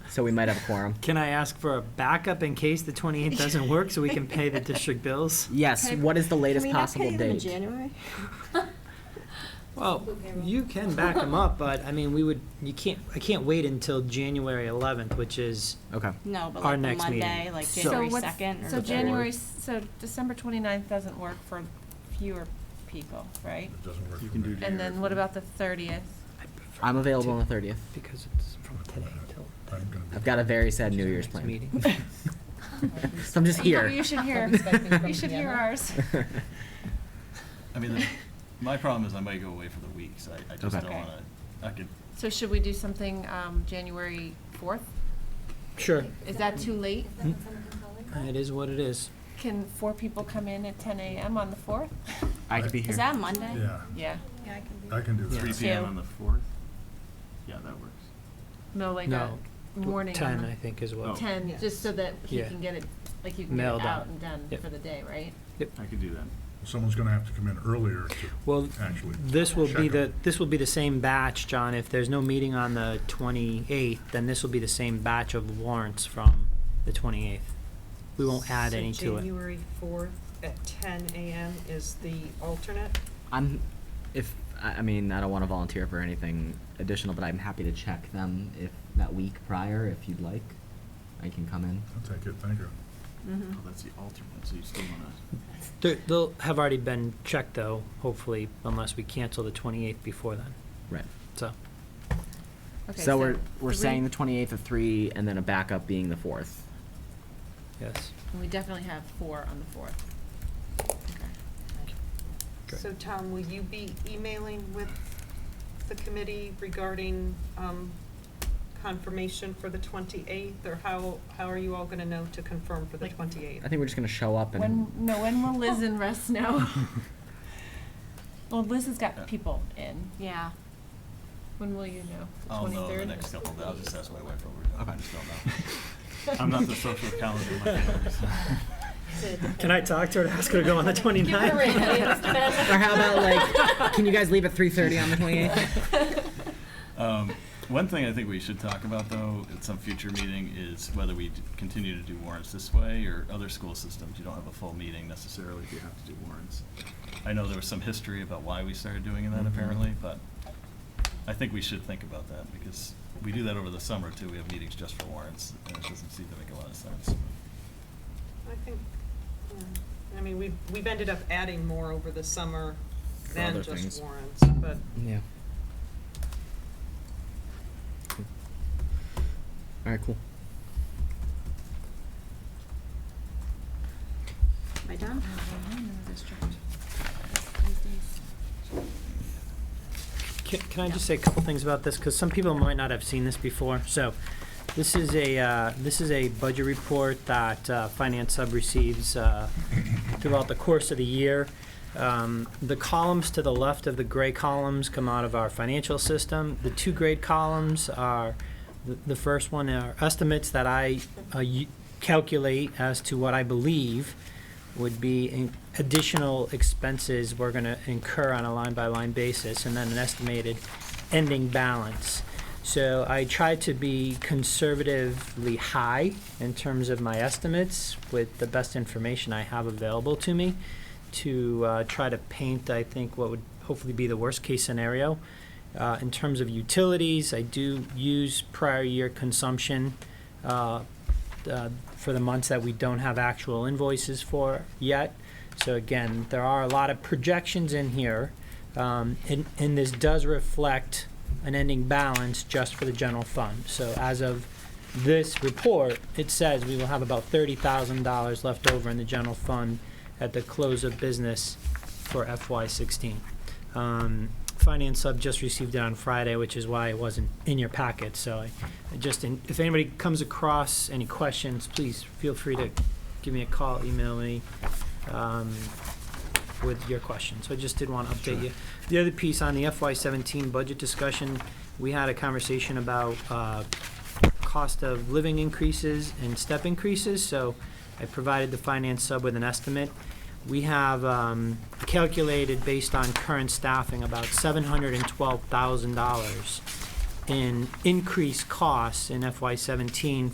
so we might have a quorum. Can I ask for a backup in case the 28th doesn't work so we can pay the district bills? Yes, Okay. what is the latest possible Can we not date? pay them in January? Well, Oh, you can back them up, but I mean, we would, you can't, I can't wait until January 11th, which is, Okay. No, but like Our the next meeting. Monday, like So- January So what's- second or. So the third. January, s- so December 29th doesn't work for fewer people, right? It doesn't work You for can me. do And then what about the 30th? I'm available on the thirtieth. because it's from today till I'm gonna be- I've got a very sad New Year's next plan. meeting. So I'm just here. Oh, You should hear, you should hear ours. I mean, the- my problem is I might go away for the week, so I, I just Okay. don't Okay. wanna, I could, So should we do something um, January 4th? Sure, Is that too late? it is what it is. Can four people come in at 10 a.m. on the 4th? I could be Is here. that Monday? Yeah, Yeah, I can do that. three Two. PM on the fourth? Yeah, that works. no, like a No, morning. on 10, the- I think, as Oh. well. 10, just so that he Yeah. can get it, like you can get Mailed it out out. and done Yep. for the day, right? I could do that. Someone's gonna have to come in earlier to Well, actually. this will be check the, them. this will be the same batch, John. If there's no meeting on the 28th, then this will be the same batch of warrants from the 28th. We won't add So any to it. January fourth at ten AM is the alternate? I'm, if, I, I mean, I don't wanna volunteer for anything additional, but I'm happy to check them if, that week prior, if you'd like. I can come in. I'll take it, thank you. Oh, Mm-hmm. that's the alternate, so you still wanna, They're- They'll have already been checked, though, hopefully, unless we cancel the 28th before then, Right. so. Okay, So we're, we're three- saying the twenty-eighth at three and then a backup being the fourth. Yes. We definitely have four on the 4th. Okay. Great. So Tom, will you be emailing with the committee regarding um, confirmation for the twenty-eighth? Or how, how are you all gonna know to confirm for the Like- twenty-eighth? I think we're just gonna show up When, and, no, when will Liz and Russ know? Well, Liz has got people in. Yeah. When will you know? The I'll know in 23rd? Oh, the next couple of days, I'll just ask my wife over, I Okay. just don't know. I'm not the social calendar in my family, so. Can I talk to her and ask her to go on the 29th? Give her a ring, it's best. or how about like, can you guys leave at three thirty on the twenty-eighth? Um, One thing I think we should talk about, though, at some future meeting, is whether we d- continue to do warrants this way or other school systems. You don't have a full meeting necessarily if you have to do warrants. I know there was some history about why we started doing that Mhm. apparently, but I think we should think about that because we do that over the summer too. We have meetings just for warrants and it doesn't seem to make a lot of sense. I think, yeah. I mean, we've, we've ended up adding more over the summer For than other just things. warrants, but Yeah. All right, cool. Am I done? Can, can I just say a couple things about this? Because some people might not have seen this before. So, this is a, uh, this is a budget report that uh, Finance Sub receives uh, throughout the course of the year. Um, The columns to the left of the gray columns come out of our financial system. The two gray columns are, the- the first one are estimates that I uh, y- calculate as to what I believe would be in- additional expenses we're going to incur on a line-by-line basis, and then an estimated ending balance. So I try to be conservatively high in terms of my estimates with the best information I have available to me to uh, try to paint, I think, what would hopefully be the worst-case scenario. Uh, In terms of utilities, I do use prior year consumption uh, uh, for the months that we don't have actual invoices for yet. So again, there are a lot of projections in here, um, and, and this does reflect an ending balance just for the general fund. So as of this report, it says we will have about thirty thousand dollars left over in the general fund at the close of business for FY sixteen. Um, Finance Sub just received it on Friday, which is why it wasn't in your packet, so I I just, and if anybody comes across any questions, please feel free to give me a call, email me um, with your questions. So I just did want to update you. The other piece on the FY seventeen budget discussion, we had a conversation about uh, cost of living increases and step increases, so I provided the finance sub with an estimate. We have um, calculated, based on current staffing, about seven hundred and twelve thousand dollars in increased costs in FY seventeen